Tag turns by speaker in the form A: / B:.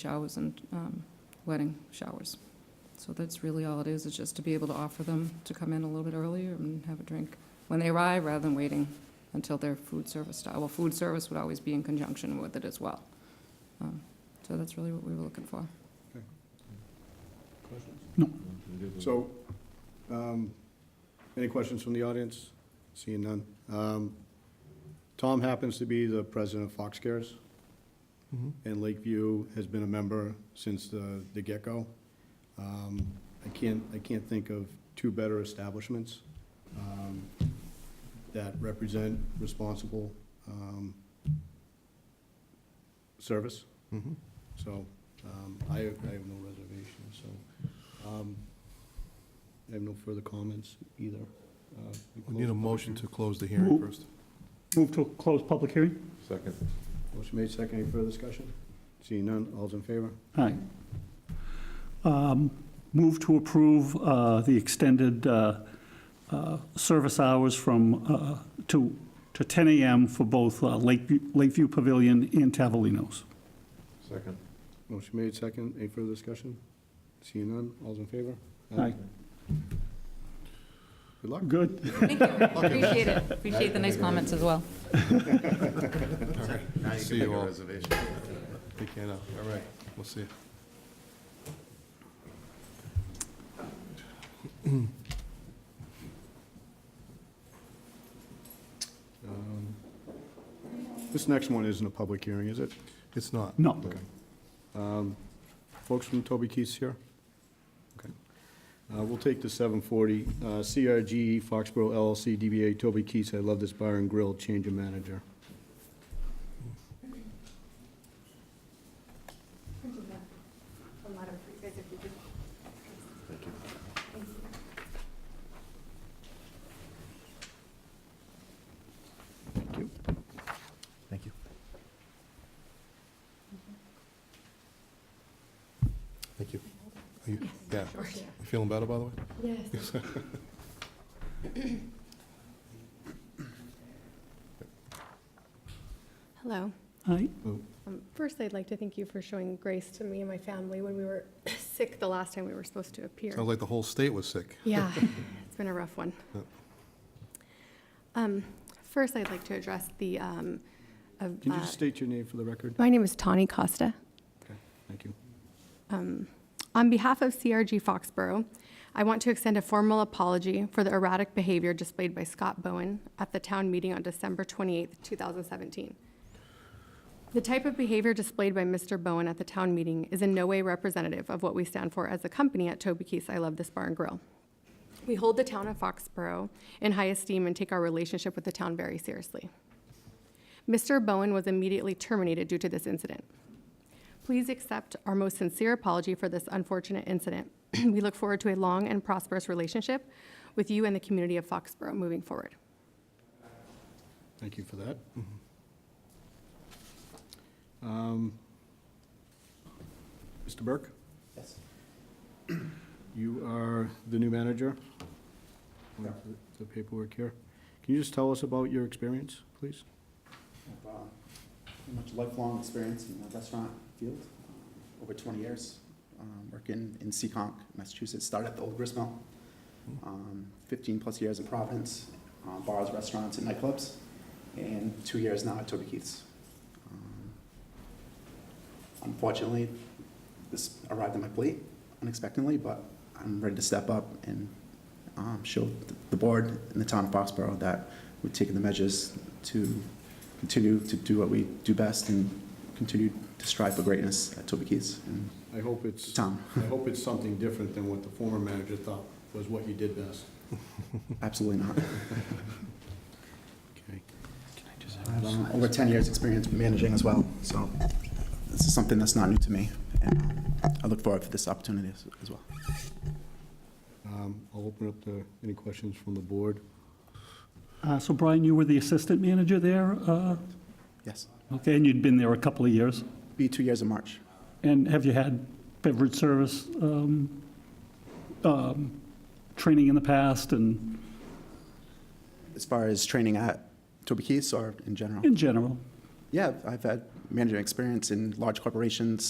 A: showers and um, wedding showers. So that's really all it is, is just to be able to offer them to come in a little bit earlier and have a drink when they arrive, rather than waiting until their food service, start. well, food service would always be in conjunction with it as well. Um, So that's really what we were looking for.
B: Questions?
C: No.
B: So, um, any questions from the audience? Seeing none. Um, Tom happens to be the president of Fox Cares,
D: Mm-hmm.
B: and Lakeview has been a member since the, the get-go. Um, I can't, I can't think of two better establishments um, that represent responsible um, service.
D: Mm-hmm.
B: So um, I, I have no reservations, so um, I have no further comments either. Uh,
D: We need a
B: close-
D: motion to close the hearing
C: Move.
D: first.
C: Move to close public hearing?
D: Second.
B: Motion made, second, any further discussion? Seeing none, all's in favor?
C: Aye. Um, Move to approve uh, the extended uh, uh, service hours from, uh, to, to 10 AM for both uh, Lakeview Lakeview Pavilion and Tavolino's.
D: Second.
B: Motion made, second, any further discussion? Seeing none, all's in favor?
C: Aye.
B: Good luck.
C: Good.
A: Thank you, appreciate it, appreciate the nice comments as well.
D: See you all. Reservation. Take care now. All right, we'll see you.
B: Um, This next one isn't a public hearing, is it?
D: It's not.
C: No.
B: Um, Folks from Toby Keith's here? Okay. Uh, We'll take the 740. Uh, CRG Foxborough LLC DBA Toby Keith's, I Love This Bar and Grill, change of manager. Thank you.
E: Thank you.
D: Thank you. Are you, yeah. You feeling better, by the way?
F: Yes. Hello.
C: Aye.
F: Um, First, I'd like to thank you for showing grace to me and my family when we were sick the last time we were supposed to appear.
D: Sounds like the whole state was sick.
F: Yeah, it's been a rough one.
D: Yep.
F: Um, First, I'd like to address the, um, of,
B: Can you
F: uh,
B: just state your name for the record?
F: my name is Tawny Costa.
B: Thank you.
F: Um, On behalf of CRG Foxborough, I want to extend a formal apology for the erratic behavior displayed by Scott Bowen at the town meeting on December 28, 2017. The type of behavior displayed by Mr. Bowen at the town meeting is in no way representative of what we stand for as a company at Toby Keith's I Love This Bar and Grill. We hold the town of Foxborough in high esteem and take our relationship with the town very seriously. Mr. Bowen was immediately terminated due to this incident. Please accept our most sincere apology for this unfortunate incident. We look forward to a long and prosperous relationship with you and the community of Foxborough moving forward.
B: Thank you for that. Mm-hmm. Um, Mr. Burke? Yes. You are the new manager? We have the- The paperwork here. Can you just tell us about your experience, please?
G: have, uh, pretty much lifelong experience in the restaurant field, um, over 20 years, um, working in Seekonk, Massachusetts, started at the Old Grist Mill, um, 15-plus years in Providence, uh, bars, restaurants, and nightclubs, and two years now at Toby Keith's. Um, Unfortunately, this arrived on my plate unexpectedly, but I'm ready to step up and um, show th- the board and the town of Foxborough that we're taking the measures to continue to do what we do best and continue to strive for greatness at Toby Keith's and
B: I hope it's,
G: Tom.
B: I hope it's something different than what the former manager thought was what you did best.
G: Absolutely not.
B: Okay.
G: I have um, over 10 years' experience managing as well, so this is something that's not new to me. And I look forward for this opportunity as- as well.
B: Um, I'll open up to any questions from the board.
C: Uh, So Brian, you were the assistant manager there? uh,
G: Yes.
C: Okay, and you'd been there a couple of years?
G: Be two years in March.
C: And have you had beverage service um, um, training in the past and
G: As far as training at Toby
C: Mm.
G: Keith's or in general?
C: in general?
G: Yeah, I've had management experience in large corporations,